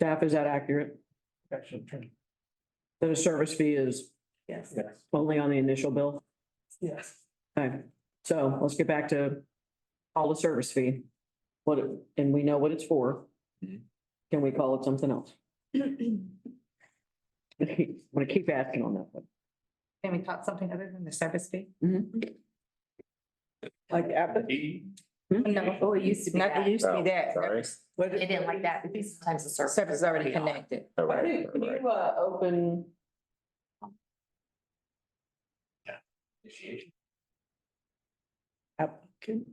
Staff, is that accurate? That a service fee is Yes. only on the initial bill? Yes. Okay, so let's get back to call the service fee. What, it- and we know what it's for. Mhm. Can we call it something else? I'm gonna keep asking on that one. Can we talk something other than the service fee? Mm-hmm. Like uh, No, oh, it used to be. Not, it used to be that. Oh, Sorry. They didn't like that, because sometimes the service. Service is already connected. All Why right, don't- all Can right. you, uh, open? Applicant?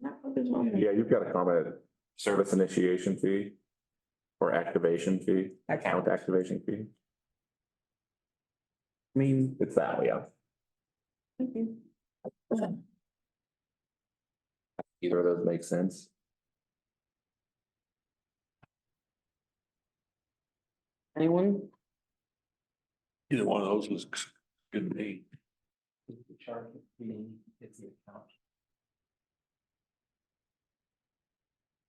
Not what is on there. Yeah, you've got a comment, service initiation fee or activation fee, account activation fee. I mean. It's that, way yeah. Either of those make sense. Anyone? Either one of those was good to me.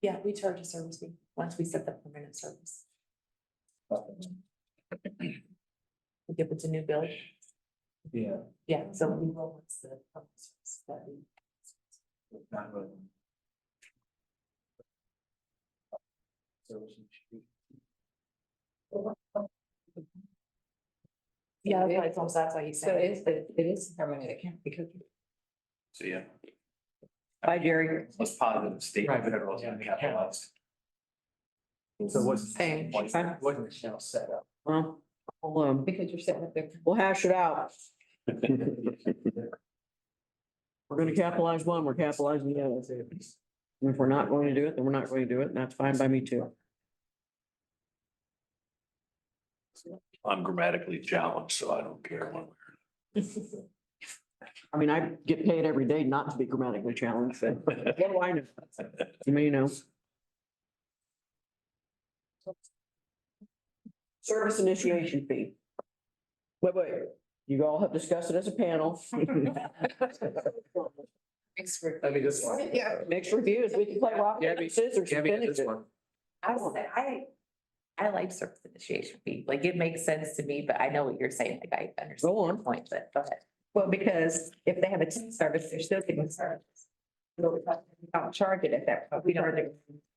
Yeah, we charge a service fee once we set the permanent service. If it's a new bill. Yeah. Yeah, so we will, once the permanent service that we. not really. So we should- Yeah, that's why it's almost- that's why he's So saying. it's, it is permanent account because So, yeah, Hi, Jerry. let's positive state. Right. federal is capitalized. So what's? Same. What Michelle set up? Well, we'll, um, because you're setting up their. we'll hash it out. We're gonna capitalize one, we're capitalizing the other. And if we're not going to do it, then we're not going to do it, and that's fine by me too. I'm grammatically challenged, so I don't care one way I mean, I get paid every day not to be grammatically challenged, but or another. what do I know? You may know. Service initiation fee. Wait, wait, you all have discussed it as a panel. Expert. Let me just. Yeah. Mixed reviews, we can play rock, paper, scissors. to finish it. I would say, I, I like service initiation fee, like it makes sense to me, but I know what you're saying, like I understand Go your on. point, but go ahead. Well, because if they have a team service, they're still getting service. Don't charge it at that. point. We don't.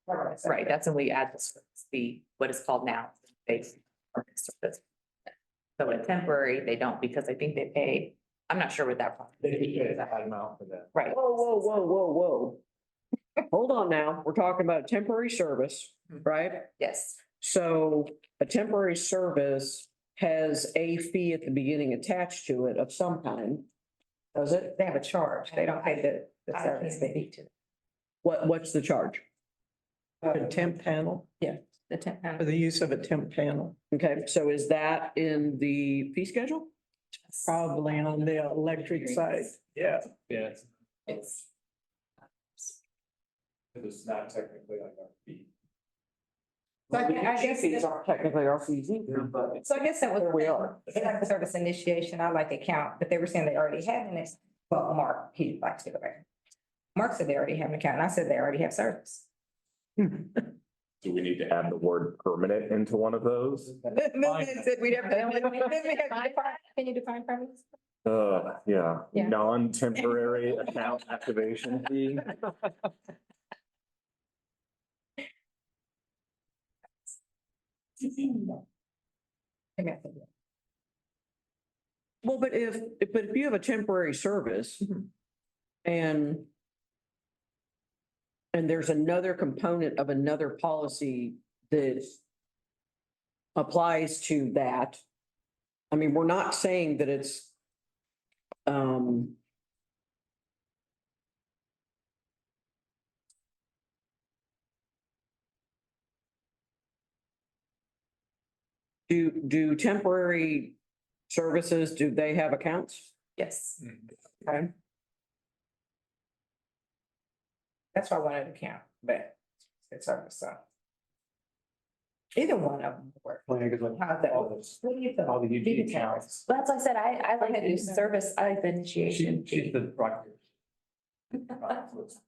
Right, that's when we add the service fee, what is called now, base. service. So it's temporary, they don't, because I think they pay, I'm not sure what that. process They get is. a high amount for that. Right. Whoa, whoa, whoa, whoa, whoa. Hold on now, we're talking about a temporary service, Hmm. right? Yes, So a temporary service has a fee at the beginning attached to it of some kind. Does it? They have a charge. They don't pay the, the I service can't fee. speak to What, what's the charge? Uh, temp panel, the temp. for the use of a temp panel, Okay, so is that in the fee schedule? probably on the electric side. Yeah. Yeah. it's- It's, It's not technically like our fee. So I guess- I guess Fees aren't technically our fees either. But So I guess that was. There we are. They like the service initiation, I like account, but they were saying they already had an, ex- well, Mark, he likes to go back. Mark said they already have an account, and I said they already have service. Do we need to add the word permanent into one of those? Said we'd have to- Can you define premise? Uh, yeah, Yeah. non-temporary account activation fee. Well, but if, if- but if you have a temporary service Mhm. and and there's another component of another policy that applies to that. I mean, we're not saying that it's um do, do temporary services, do they have accounts? Yes. That's why I wanted account, but it's service, so. Either one of them would work. plan is like How's that? all this, What do you think? all the Do UG the accounts. Well, That's why I said, I, I like Okay. the service, I like the She- initiation She's fee. the rocket.